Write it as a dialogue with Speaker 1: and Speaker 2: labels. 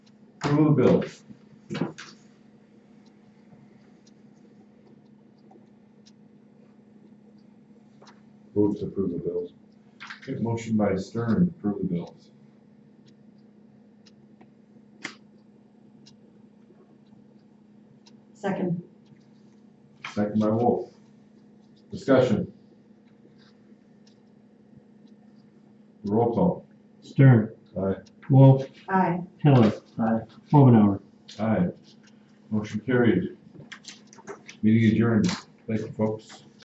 Speaker 1: Approval of bills.
Speaker 2: Move to approve the bills.
Speaker 1: Okay, motion by Stern, approve the bills.
Speaker 3: Second.
Speaker 1: Second by Wolf. Discussion. Roll call.
Speaker 4: Stern.
Speaker 2: Aye.
Speaker 4: Wolf.
Speaker 3: Aye.
Speaker 4: Heller. Aye. Omenauer.
Speaker 1: Aye. Motion carried. Meeting adjourned. Thank you, folks.